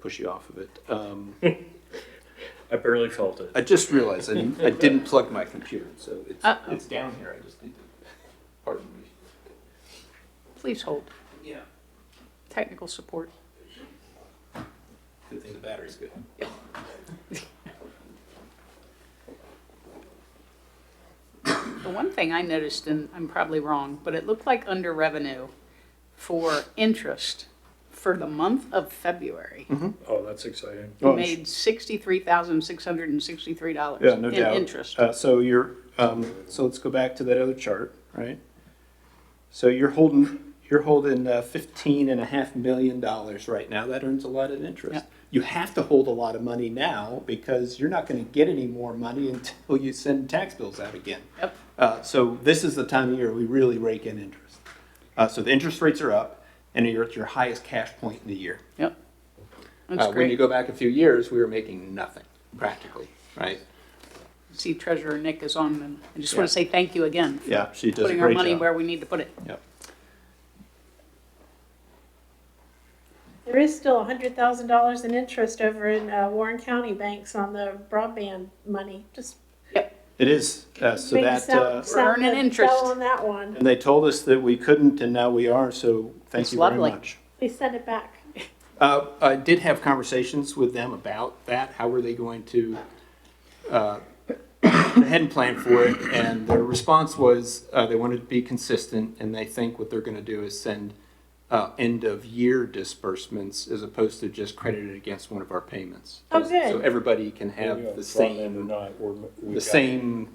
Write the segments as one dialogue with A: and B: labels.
A: push you off of it. Um,
B: I barely felt it.
A: I just realized I didn't, I didn't plug my computer, so it's,
C: Uh-oh.
A: it's down here. I just need to, pardon me.
C: Please hold.
A: Yeah.
C: Technical support.
A: Good thing the battery's good.
C: The one thing I noticed, and I'm probably wrong, but it looked like under revenue for interest for the month of February.
A: Mm-hmm.
B: Oh, that's exciting.
C: We made sixty-three thousand, six hundred and sixty-three dollars
A: Yeah, no
C: in
A: doubt.
C: interest.
A: Uh, so you're, um, so let's go back to that other chart, right? So you're holding, you're holding uh, fifteen and a half million dollars right now. That earns a lot of interest.
C: Yeah.
A: You have to hold a lot of money now because you're not gonna get any more money until you send tax bills out again.
C: Yep.
A: Uh, so this is the time of year we really rake in interest. Uh, so the interest rates are up and you're at your highest cash point in the year.
C: Yep. That's
A: Uh, when you
C: great.
A: go back a few years, we were making nothing practically, right?
C: See Treasurer Nick is on, and I just want
A: Yeah.
C: to say thank you again for
A: Yeah, she does a
C: putting our
A: great
C: money
A: job.
C: where we need to put it.
A: Yep.
D: There is still hundred thousand dollars in interest over in uh, Warren County banks on the broadband money. Just
A: It is, uh, so
D: make
A: that,
D: sell-
A: uh,
D: sell
C: Earn an
D: the-
C: interest.
D: Sell on that one.
A: and they told us that we couldn't and now we are, so thank
C: It's
A: you very
C: lovely.
A: much.
D: They sent it back.
A: Uh, I did have conversations with them about that, how were they going to, uh, go ahead and plan for it, and their response was, uh, they wanted to be consistent, and they think what they're gonna do is send, uh, end-of-year disbursements as opposed to just credited against one of our payments.
D: Oh,
A: So
D: good.
A: everybody can have the same, the same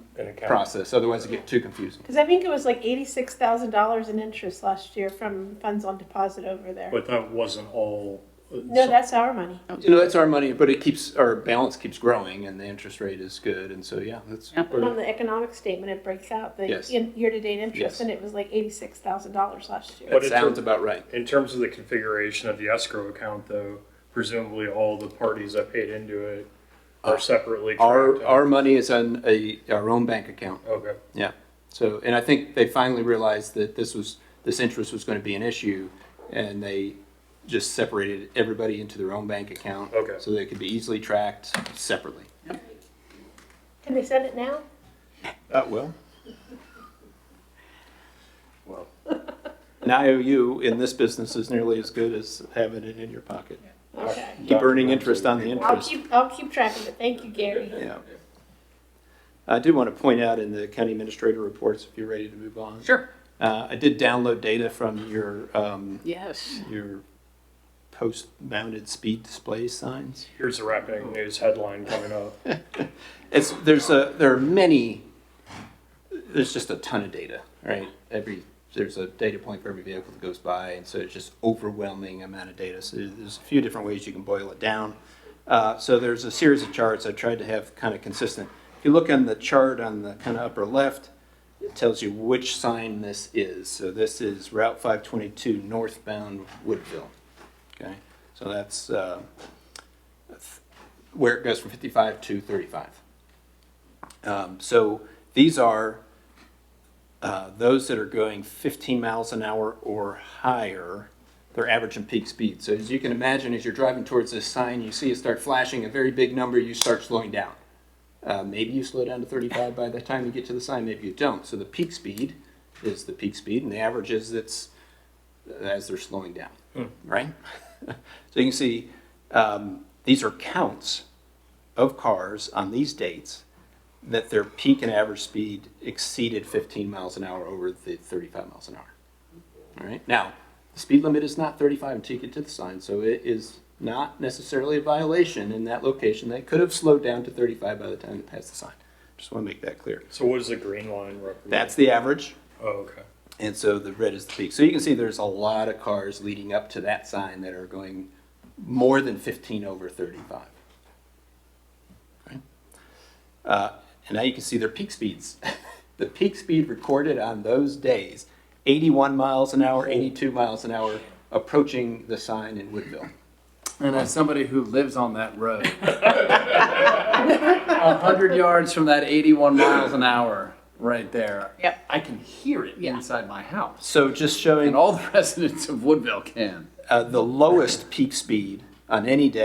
A: process, otherwise it get too confusing.
D: Because I think it was like eighty-six thousand dollars in interest last year from funds on deposit over there.
B: But that wasn't all. uh,
D: No, that's our money.
A: You know, that's our money, but it keeps, our balance keeps growing and the interest rate is good, and so, yeah, that's.
C: Yeah.
D: And on the economic statement, it breaks out the
A: Yes.
D: in- year-to-date
A: Yes.
D: interest, and it was like eighty-six thousand dollars last year.
A: That
B: But it's
A: sounds
B: a-
A: about right.
B: In terms of the configuration of the escrow account, though, presumably all the parties that paid into it are separately.
A: Uh, Our,
B: tracked.
A: our money is on a, our own bank account.
B: Okay.
A: Yeah. So, and I think they finally realized that this was, this interest was going to be an issue and they just separated everybody into their own bank account.
B: Okay.
A: So they could be easily tracked separately.
D: Can they send it now?
A: That will. Well. An IOU in this business is nearly as good as having it in your pocket.
D: Okay.
A: Keep earning interest on the
D: I'll
A: interest.
D: keep, I'll keep track of it. Thank you, Gary.
A: Yeah. I do want to point out in the county administrator reports, if you're ready to move on.
C: Sure.
A: Uh, I did download data from your, um,
C: Yes.
A: your post-mounted speed display signs.
B: Here's the rapping news headline coming up.
A: It's, there's a, there are many, there's just a ton of data, right? Every, there's a data point for every vehicle that goes by, and so it's just overwhelming amount of data. So there's a few different ways you can boil it down. Uh, so there's a series of charts I tried to have kind of consistent. If you look on the chart on the kind of upper left, it tells you which sign this is. So this is Route 522 northbound Woodville. Okay, so that's uh, where it goes from 55 to 35. Um, so these are uh, those that are going 15 miles an hour or higher. They're average and peak speed. So as you can imagine, as you're driving towards this sign, you see it start flashing a very big number. You start slowing down. Uh, maybe you slow down to 35 by the time you get to the sign. Maybe you don't. So the peak speed is the peak speed, and the average is it's uh, as they're slowing down, right? so you can see um, these are counts of cars on these dates that their peak and average speed exceeded 15 miles an hour over the 35 miles an hour. All right. Now, the speed limit is not 35 until you get to the sign, so it is not necessarily a violation in that location. They could have slowed down to 35 by the time they passed the sign. Just want to make that clear.
B: So what does the green line represent?
A: That's the average.
B: Oh, okay.
A: And so the red is the peak. So you can see there's a lot of cars leading up to that sign that are going more than 15 over 35. Okay. Uh, and now you can see their peak speeds. the peak speed recorded on those days 81 miles an hour, 82 miles an hour, approaching the sign in Woodville.
E: And as somebody who lives on that road, a hundred yards from that eighty-one miles an hour right there,
C: Yep.
E: I can hear it
C: Yeah.
E: inside my house,
A: So just showing
E: and all the residents of Woodville can.
A: uh, the lowest peak speed on any day.